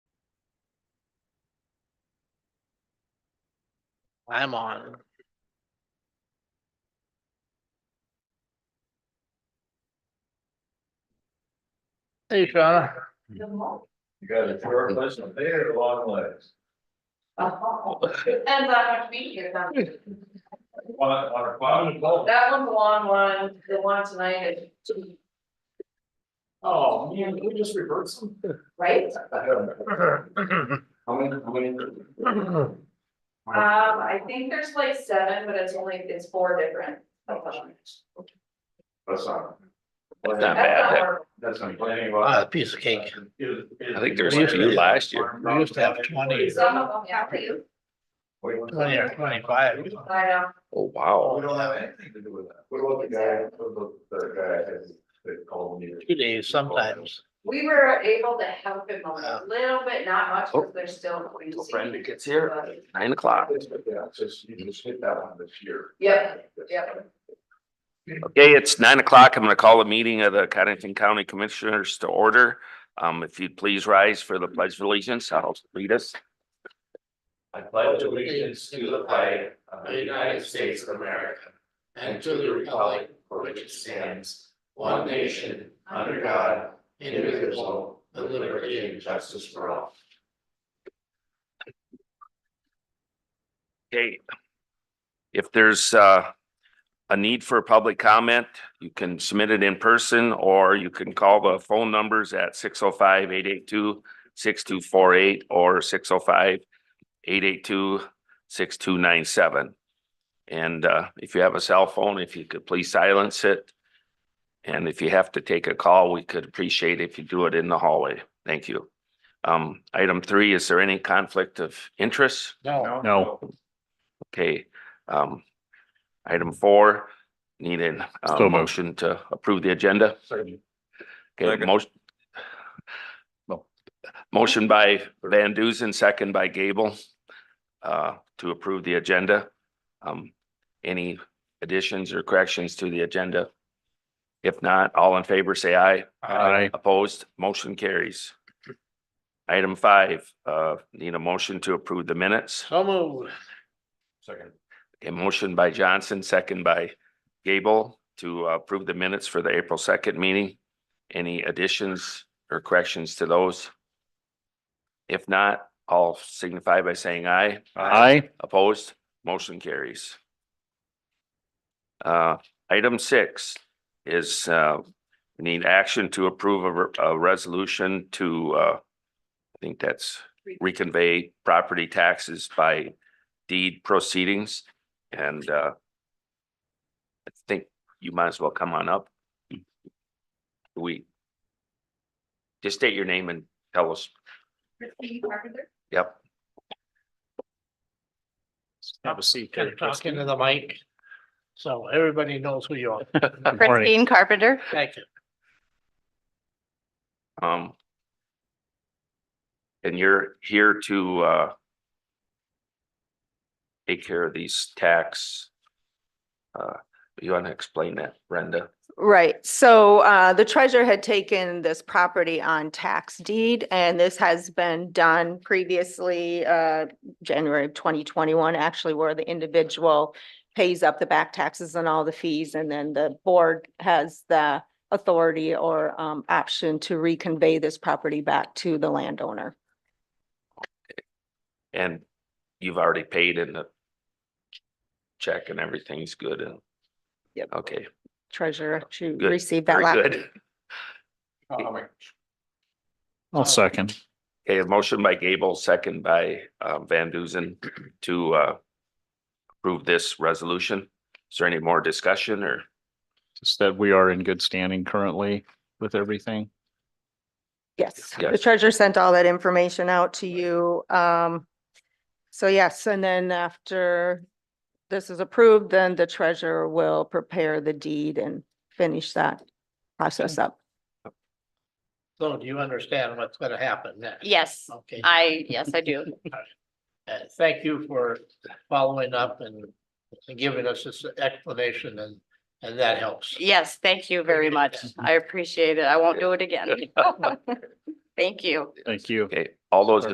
I'm on. Hey, Shauna. You got a short list of big, long legs. Depends on how much meat you have. On, on a bottom level. That one's a long one, the one tonight is, two, Oh, man, we just reversed them. right? How many, how many? Oh, Um, I think there's like seven, but it's only, it's four different. That's not. That's That's not bad. not that- horrible. That's complaining Ah, a about. piece of cake. I think there was a few last year. We used to have Oh, 20. Some of them have to, Twenty or twenty-five. I know, Oh, Oh, we wow. don't have anything to do with that. What about the guy, what about the guy that- that called me? Two days sometimes. we were able to help him a little bit, not much, because they're still. Little crazy, friend that gets here, but- nine o'clock. It's- Yeah, it's just, you just hit that one this year. Yeah, yeah. Okay, it's nine o'clock. I'm gonna call a meeting of the Cottington County Commissioners to order. Um, if you'd please rise for the pledge of allegiance, I'll lead us. I pledge allegiance to the flag of the United States of America and to the republic for which it stands, one nation, under God, indivisible, with liberty and justice for all. Okay. If there's uh a need for a public comment, you can submit it in person or you can call the phone numbers at 605-882-6248 or 605-882-6297. And uh if you have a cell phone, if you could please silence it. And if you have to take a call, we could appreciate if you do it in the hallway. Thank you. Um, item three, is there any conflict of interest? No, No. Okay, um, item four, need an, uh, motion to approve the agenda. Okay, Second. motion. Motion by Van Duzen, second by Gable, uh, to approve the agenda. Um, any additions or corrections to the agenda? If not, all in favor, say aye. Aye. Opposed, motion carries. Item five, uh, need a motion to approve the minutes. so moved. Second. A motion by Johnson, second by Gable to uh, approve the minutes for the April second meeting. Any additions or corrections to those? If not, I'll signify by saying aye. Aye. Opposed, motion carries. Uh, item six is, uh, we need action to approve a, re- a resolution to, uh, I think that's reconvey property taxes by deed proceedings and, uh, I think you might as well come on up. We just state your name and tell us, Christine Carpenter? yep. Have a seat. Kind of talk into the mic. So everybody knows who you are. Christine Carpenter. Thank you. Um. And you're here to, uh. Take care of these tax. Uh, you want to explain that, Brenda? Right, so uh, the treasurer had taken this property on tax deed, and this has been done previously, uh, January of twenty twenty-one, actually, where the individual pays up the back taxes and all the fees, and then the board has the authority or um, option to reconvey this property back to the landowner. And you've already paid in the. Check and everything's good and. Yep. Okay, Treasurer to Oh, Good, receive that. very la- good. Oh, I'll second. Okay, a motion by Gable, second by, uh, Van Duzen to, uh. Approve this resolution. Is there any more discussion or? Just that we are in good standing currently with everything. Yes, the Yes. treasurer sent all that information out to you. Um, so yes, and then after this is approved, then the treasurer will prepare the deed and finish that process up. So do you understand what's gonna happen next? Yes, Okay. I, yes, I do. Uh, thank you for following up and giving us this explanation and, and that helps. Yes, thank you very much. I appreciate it. I won't do it again. Thank you. Thank you. Okay, all those in